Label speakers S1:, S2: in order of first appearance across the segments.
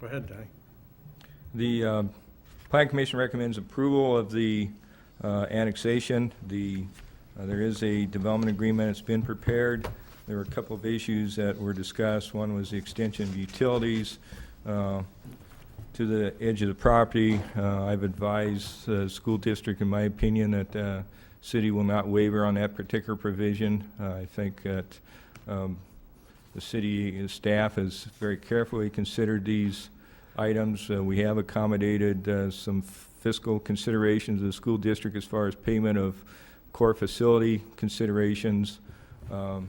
S1: Go ahead, Danny.
S2: The um, Plan Commission recommends approval of the uh, annexation. The, uh, there is a development agreement, it's been prepared. There were a couple of issues that were discussed. One was the extension of utilities uh, to the edge of the property. Uh, I've advised the school district, in my opinion, that the city will not waiver on that particular provision. Uh, I think that um, the city staff has very carefully considered these items. Uh, We have accommodated uh, some fiscal considerations of the school district as far as payment of core facility considerations. Um,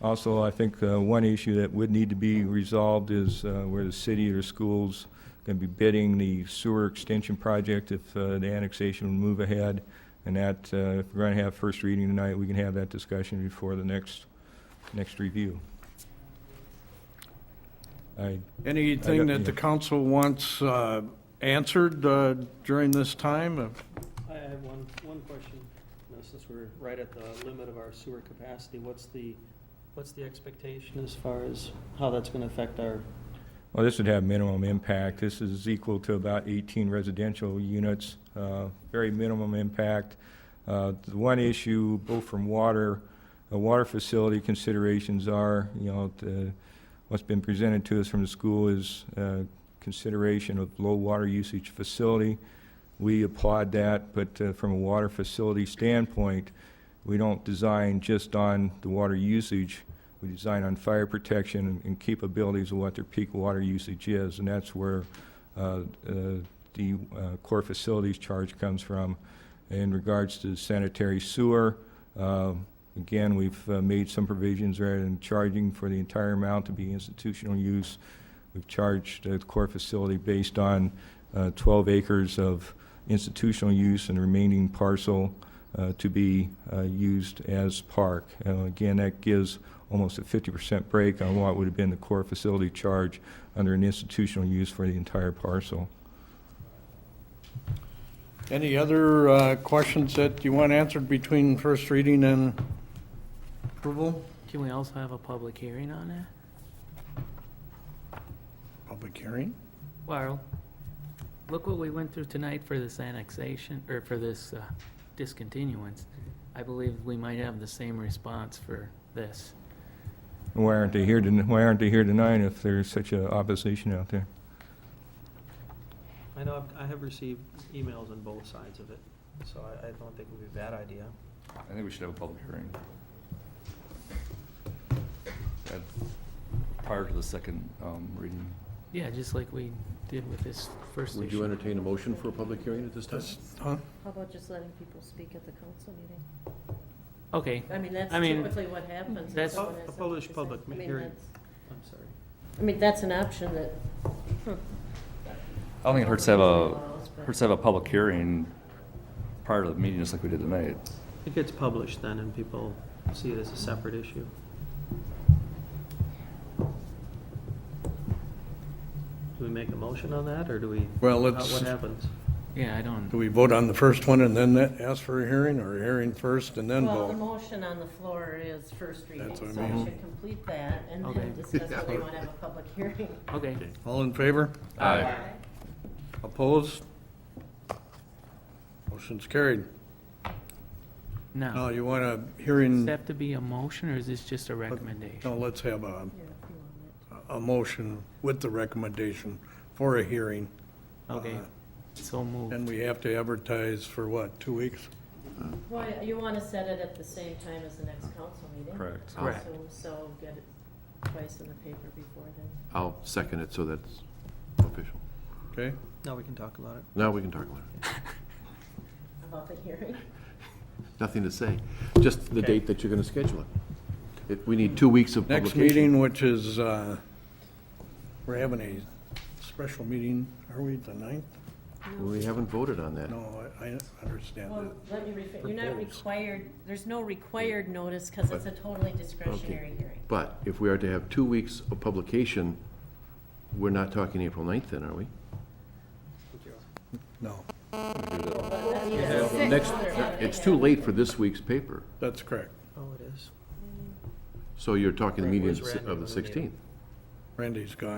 S2: Also, I think uh, one issue that would need to be resolved is uh, where the city or schools going to be bidding the sewer extension project if uh, the annexation would move ahead. And that, uh, if we're going to have first reading tonight, we can have that discussion before the next, next review. I
S1: Anything
S2: got-
S1: that the council wants uh, answered uh, during this time? Uh,
S3: I have one, one question. You know, since we're right at the limit of our sewer capacity, what's the, what's the expectation as far as how that's gonna affect our,
S2: Well, this would have minimum impact. This is equal to about 18 residential units, uh, very minimum impact. Uh, The one issue, both from water, uh, water facility considerations are, you know, the- what's been presented to us from the school is uh, consideration of low water usage facility. We applaud that, but uh, from a water facility standpoint, we don't design just on the water usage. We design on fire protection and- and capabilities of what their peak water usage is, and that's where uh, uh, the uh, core facilities charge comes from. In regards to sanitary sewer, uh, again, we've uh, made some provisions rather than charging for the entire amount to be institutional use. We've charged uh, the core facility based on uh, 12 acres of institutional use and the remaining parcel uh, to be uh, used as park. Uh, Again, that gives almost a 50% break on what would have been the core facility charge under an institutional use for the entire parcel.
S1: Any other uh, questions that you want answered between first reading and approval?
S4: Can we also have a public hearing on it?
S1: Public hearing?
S4: Well, look what we went through tonight for this annexation, or for this uh, discontinuance. I believe we might have the same response for this.
S2: Why aren't they here, ton- why aren't they here tonight if there's such a opposition out there?
S3: I know, I've- I have received emails on both sides of it, so I, I don't think it would be a bad idea.
S5: I think we should have a public hearing. And Prior to the second um, reading.
S4: Yeah, just like we did with this first issue.
S6: Would you entertain a motion for a public hearing at this time?
S1: Huh?
S7: How about just letting people speak at the council meeting?
S4: Okay,
S7: I mean, that's
S4: I mean,
S7: typically what happens. if
S4: that's-
S7: someone
S3: A
S7: has something
S3: published
S7: to say.
S3: public
S7: I mean,
S3: hearing.
S7: that's-
S3: I'm sorry.
S7: I mean, that's an option that.
S5: I don't think it hurts to have a, hurts to have a public hearing prior to the meeting, just like we did tonight.
S3: It gets published then and people see it as a separate issue. Do we make a motion on that, or do we?
S1: Well,
S3: how-
S1: let's-
S3: What happens?
S4: yeah, I don't,
S1: Do we vote on the first one and then that- ask for a hearing, or a hearing first and then
S7: Well, the
S1: vote?
S7: motion on the floor is first reading,
S1: That's
S7: so
S1: what I
S7: we
S1: mean.
S7: should complete that and
S4: Okay.
S7: then discuss whether you want to have a public hearing.
S4: okay.
S1: All in favor?
S5: Aye.
S1: Opposed? Motion's carried. Now,
S4: Now,
S1: you want a
S4: does
S1: hearing,
S4: that have to be a motion, or is this just a recommendation?
S1: no, let's have a,
S7: Yeah, if you want it.
S1: a motion with the recommendation for a hearing.
S4: Okay,
S1: Uh,
S4: so moved.
S1: And we have to advertise for what, two weeks?
S7: Well, you want to set it at the same time as the next council meeting.
S5: Correct.
S4: Correct.
S7: So- So get it twice in the paper before then.
S6: I'll second it, so that's official.
S1: Okay?
S3: Now we can talk about it.
S6: Now we can talk about it.
S7: About the hearing?
S6: Nothing to say, just the
S1: Okay.
S6: date that you're going to schedule it. If We need two weeks of
S1: Next
S6: publication.
S1: meeting, which is, uh, we're having a special meeting, are we, the ninth?
S6: We haven't voted on that.
S1: No, I I understand
S7: Well,
S1: that.
S7: let me rephrase, you're not
S1: Proposed.
S7: required, there's no required notice because it's a totally discretionary hearing.
S6: But if we are to have two weeks of publication, we're not talking April 9th then, are we?
S1: No,
S6: Next, it's too late for this week's paper,
S1: that's correct.
S3: Oh, it is.
S6: so you're talking the meeting
S3: Where's Randy
S6: of the
S3: on the meeting?
S6: 16th.
S1: Randy's gone.